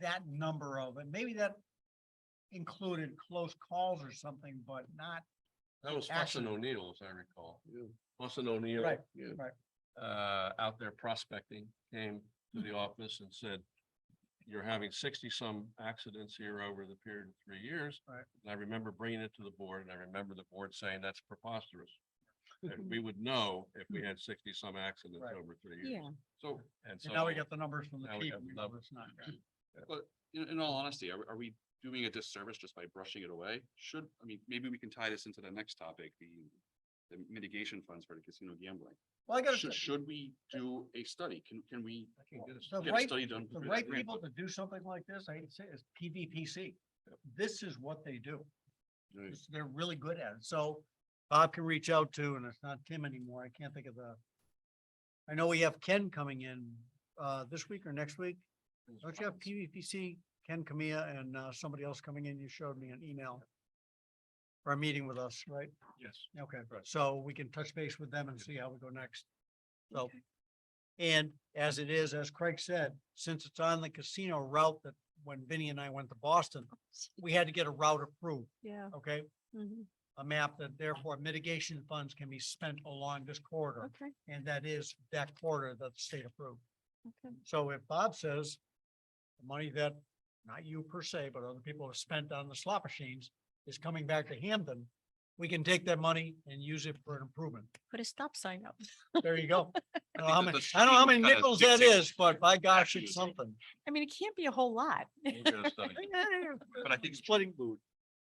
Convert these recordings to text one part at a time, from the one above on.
that number of, and maybe that included close calls or something, but not, That was Action. Fussin O'Neill, as I recall. Fussin O'Neill. Right, yeah. right. Uh, out there prospecting, came to the office and said, you're having sixty-some accidents here over the period of three years. Right. And I remember bringing it to the board, and I remember the board saying that's preposterous. And we would know if we had sixty-some accidents Right. over three years. Yeah, So, and so. and now we got the numbers from the now we chief. have we the know numbers. it's not good. In, in all honesty, are, are we doing a disservice just by brushing it away? Should, I mean, maybe we can tie this into the next topic, the, the mitigation funds for the casino gambling. Well, I gotta, Should, say, should we do a study? Can, can we I can get a The get a right- study done? the for right grant people fund? to do something like this, I hate to say, it, is PVPC. This is what they do. Right. It's- They're really good at it. So Bob can reach out to, and it's not Tim anymore. I can't think of the. I know we have Ken coming in, uh, this week or next week. Don't you have PVPC, Ken Camilla and, uh, somebody else coming in? You showed me an email. Or a meeting with us, right? Yes. Okay, Right. so we can touch base with them and see how we go next. So. Okay. And as it is, as Craig said, since it's on the casino route that when Vinny and I went to Boston, we had to get a route approved, yeah. okay? mhm, A map that therefore mitigation funds can be spent along this corridor, Okay, and that is that corridor that the state approved. okay. So if Bob says the money that, not you per se, but other people have spent on the slot machines is coming back to Hampton, we can take that money and use it for an improvement. Put a stop sign up. There you go. I don't know think how that many, the I don't know how street many kinda nickels that dictates is, but by gosh, actually it's is. something. I mean, it can't be a whole lot. We'll get a study. But I think. Splitting- food.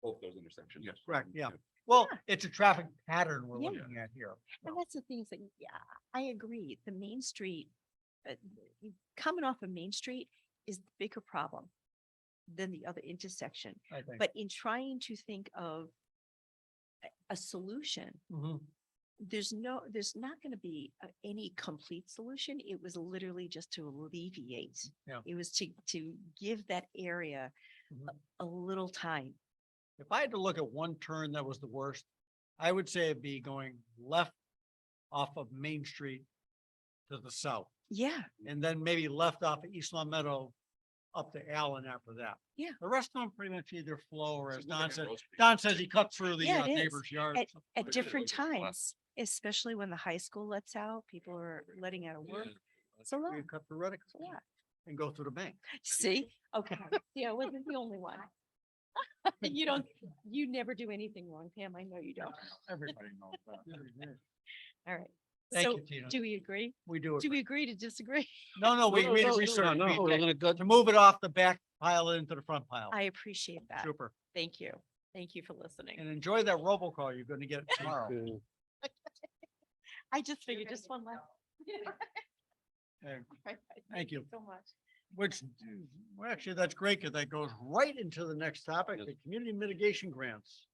Both those intersections. Mm, Yes. Correct, yeah. Well, it's a traffic pattern we're Yeah. looking at here. And that's the things that, yeah, I agree. The Main Street, uh, y- coming off of Main Street is the bigger problem than the other intersection. I think. But in trying to think of a- a solution, Mhm. there's no, there's not going to be a- any complete solution. It was literally just to alleviate. Yeah. It was to, to give that area a- Mhm. a little time. If I had to look at one turn that was the worst, I would say it'd be going left off of Main Street to the south, Yeah, and then maybe left off of East Long Meadow up to Allen after that. Yeah. The rest of them pretty much either flow or So as look at Don said, Rose Street. Don says he cut through the Yeah, uh, it is. neighbor's yard. At- at Like, different like, like, times, especially when the high school lets out, people are letting out of work. It's a lot. You cut through Reddick it's a lot. and go through the bank. See, okay, yeah, I wasn't the only one. You don't, you never do anything wrong, Pam. I know you don't. Everybody knows that. All right. Thank So you, Tina. do we agree? We do. Do agree. we agree to disagree? No, no, we, No, we no, no, research. no, we- we're gonna go, To move it off the back pile into the front pile. I appreciate that. Super. Thank you. Thank you for listening. And enjoy that robocall you're gonna get tomorrow. to- I just figured just one last. Uh, Right, Thank you. So much. Which, well, actually, that's great because that goes right into the next topic, Yes. the community mitigation grants.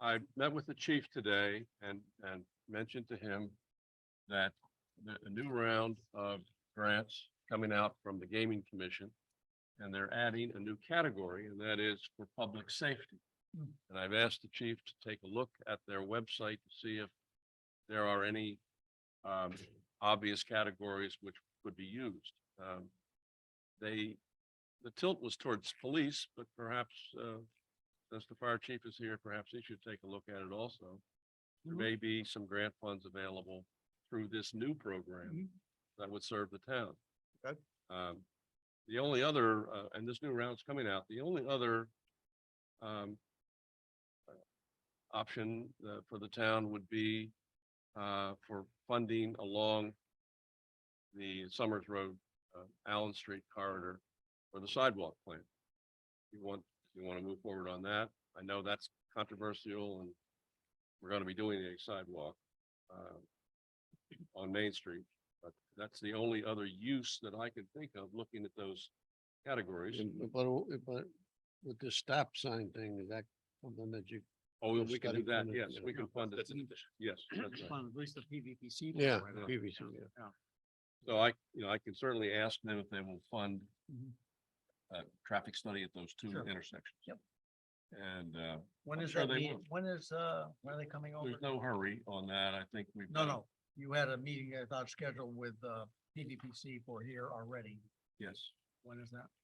I met with the chief today and, and mentioned to him that the a new round of grants coming out from the gaming commission. And they're adding a new category and that is for public safety. Hmm. And I've asked the chief to take a look at their website to see if there are any um, obvious categories which would be used. Um, They, the tilt was towards police, but perhaps, uh, since the fire chief is here, perhaps he should take a look at it also. There Mhm. may be some grant funds available through this new program that would serve the town. Okay. Um, the only other, uh, and this new round's coming out, the only other, um, uh, option, uh, for the town would be, uh, for funding along the Summers Road, uh, Allen Street corridor for the sidewalk plan. You want, you want to move forward on that? I know that's controversial and we're going to be doing a sidewalk, uh, on Main Street. But that's the only other use that I can think of, looking at those categories. But, but with the stop sign thing, is that something that you, Oh, we'll we can study do that, further, yes, yeah. we can fund it, That's an addition. yes. that's right. Fund, At least the PVPC. yeah, program. previously, yeah. So I, you know, I can certainly ask them if they will fund Mhm. a traffic study at those two Sure. intersections. Yep. And, uh, When I'm is sure that they meeting? will. When is, uh, when are they coming over? there's no hurry on that, I think we've. No, got- no, you had a meeting I thought scheduled with, uh, PVPC for here already. Yes, When is that?